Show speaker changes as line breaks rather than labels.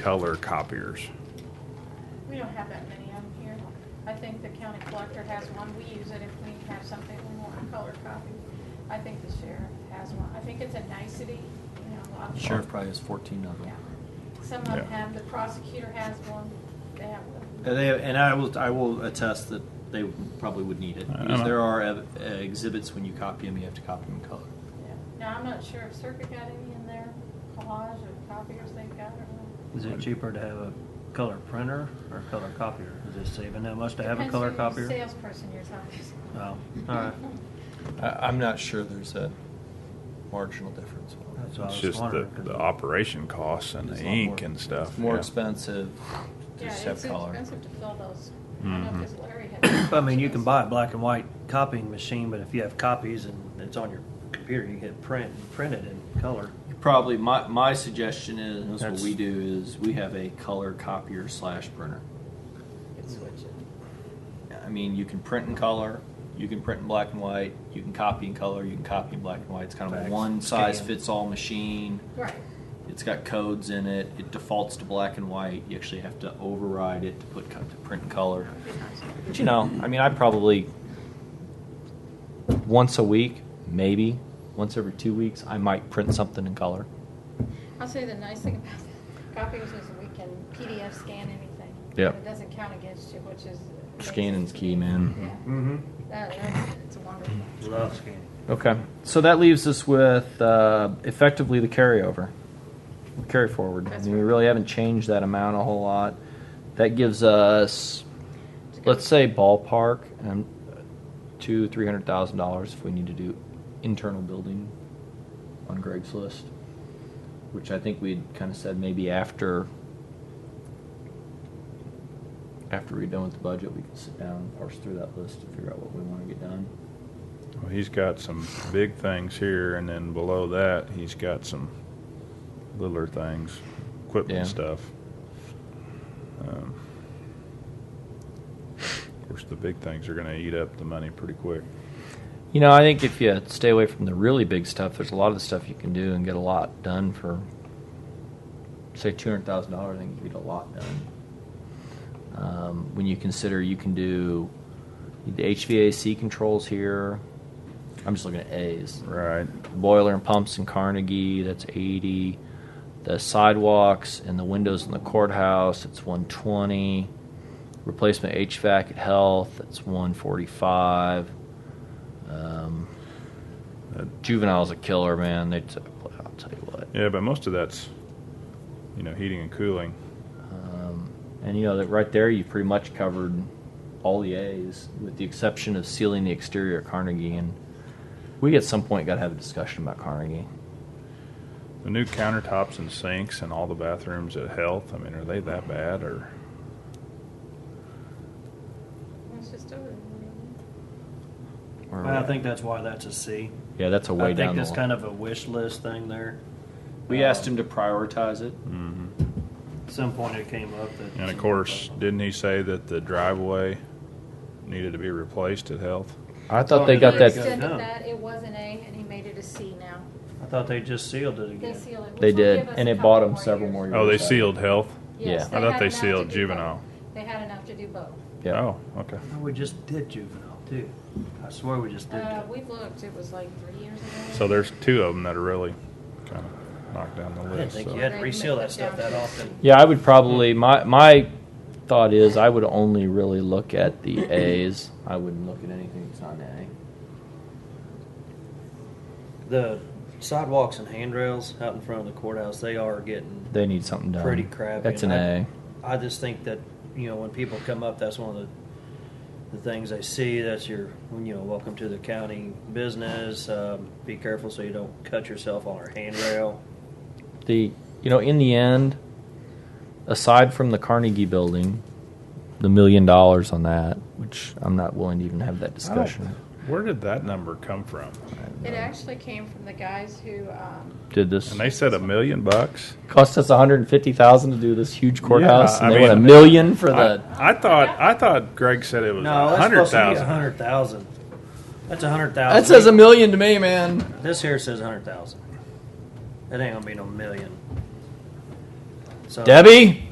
color copiers.
We don't have that many of them here. I think the county collector has one. We use it if we have something we want a color copy. I think the sheriff has one. I think it's a nicety, you know, a lot of.
Sheriff probably has fourteen of
Yeah.
them.
Some of them
Yeah.
have, the prosecutor has one. They have one.
And, they, and I will I will attest that they probably would need it
I
because
know.
there are uh, exhibits when you copy them, you have to copy them in color.
Yeah. Now, I'm not sure if Circuit got any in their collage or copiers they've got or not.
Is it cheaper to have a color printer or a color copier? Is it saving that much to have a color
Depends who the
copier?
Salesperson you're talking to.
Oh, all right.
I, I'm not sure there's a marginal difference.
That's what I
It's
was
just the,
wondering.
the operation costs and
It's
the
a lot
ink
more-
and stuff.
It's more
yeah.
expensive to
Yeah,
just
it's
have color. Mm-hmm.
expensive to fill those. I don't know
Mhm.
if it's Larry had.
I mean, you can buy a black and white copying machine, but if you have copies and it's on your computer, you hit print and print it in color.
Probably my, my suggestion is and that's,
That's-
what we do is we have a color copier slash printer.
Could switch it.
I mean, you can print in color, you can print in black and white, you can copy in color, you can copy in black and white. It's kind of a
Facts.
one size
Scan.
fits all machine.
Right.
It's got codes in it. It defaults to black and white. You actually have to override it to put co- to print in color. But you know, I mean, I probably once a week, maybe once every two weeks, I might print something in color.
I'll say the nice thing about copiers is we can PDF scan anything.
Yep.
It doesn't count against you, which is. amazing
Scanning's
to
key,
me.
man.
Yeah.
Mm-hmm.
That, that's, it's wonderful.
Love scanning.
Okay, so that leaves us with uh, effectively the carryover, carry forward. I
That's
mean, we
right.
really haven't changed that amount a whole lot. That gives us, let's say, ballpark um, two three hundred thousand dollars if we need to do internal building on Greg's list, which I think we'd kind of said maybe after after we're done with the budget, we can sit down and parse through that list and figure out what we want to get done.
Well, he's got some big things here, and then below that, he's got some littler things, equipment
Yeah.
stuff. Um, of course, the big things are going to eat up the money pretty quick.
You know, I think if you stay away from the really big stuff, there's a lot of the stuff you can do and get a lot done for, say, two hundred thousand dollars. I think you can get a lot done. Um, when you consider you can do the HVAC controls here. I'm just looking at A's.
Right.
Boiler and pumps in Carnegie, that's eighty. The sidewalks and the windows in the courthouse, it's one twenty. Replacement HVAC at health, that's one forty-five. Um, juvenile's a killer, man. They, t- I'll tell you what.
Yeah, but most of that's, you know, heating and cooling.
Um, and you know that right there, you pretty much covered all the A's, with the exception of sealing the exterior at Carnegie. And we at some point got to have a discussion about Carnegie.
The new countertops and sinks and all the bathrooms at Health. I mean, are they that bad or?
It's just over.
Where are we
I
at?
think that's why that's a C.
Yeah, that's a
I
way
think
down.
that's
the
kind of a wish list thing there.
We
Um,
asked him to prioritize it.
hmm
At some point it came up that.
And of course, didn't he say that the driveway needed to be replaced at Health?
I
thought
thought
Oh, they
they got
and got then that-
They
that.
got-
extended
down.
that, it was an A, and he made it a C now.
I thought they just sealed it
They
again.
sealed it. which
They
will
did,
give us
and
a
it bought
couple
them several more
years.
Oh, they sealed Health.
Yes,
Yeah.
I thought
had
they
enough to
sealed
do both.
juvenile.
They had enough to do both.
Yeah.
Oh, okay.
Oh, We just did juvenile too. I swear we just did.
Uh,
that.
we looked, it was like three years ago.
So there's two of them that are really kind of knocked down the
I didn't
list.
think
so-
you had to reseal that stuff that often.
Yeah, I would probably my my thought is I would only really look at the A's. I wouldn't look at anything that's not an
The sidewalks and handrails out in front of the courthouse, they are getting
A. They need something done.
pretty crappy.
That's an
and I-
A.
I just think that you know when people come up, that's one of the the things they see. That's your you know welcome to the county business. Um, be careful so you don't cut yourself on our handrail.
the you know in the end aside from the carnegie building the million dollars on that which i'm not willing to even have
I
that
don't-
discussion
Where did that number come from?
It actually came from the guys who, um,
did this
And they said a million bucks.
cost us 150000 to do this huge courthouse
Yeah,
and
I
they want a
mean-
million for the
I, I thought I thought Greg said it was
No,
a
that's
hundred
supposed to be a
thousand.
hundred thousand. That's a hundred thousand.
that says a million to me man
This here says a hundred thousand. That ain't gonna be no million. So-
Debbie?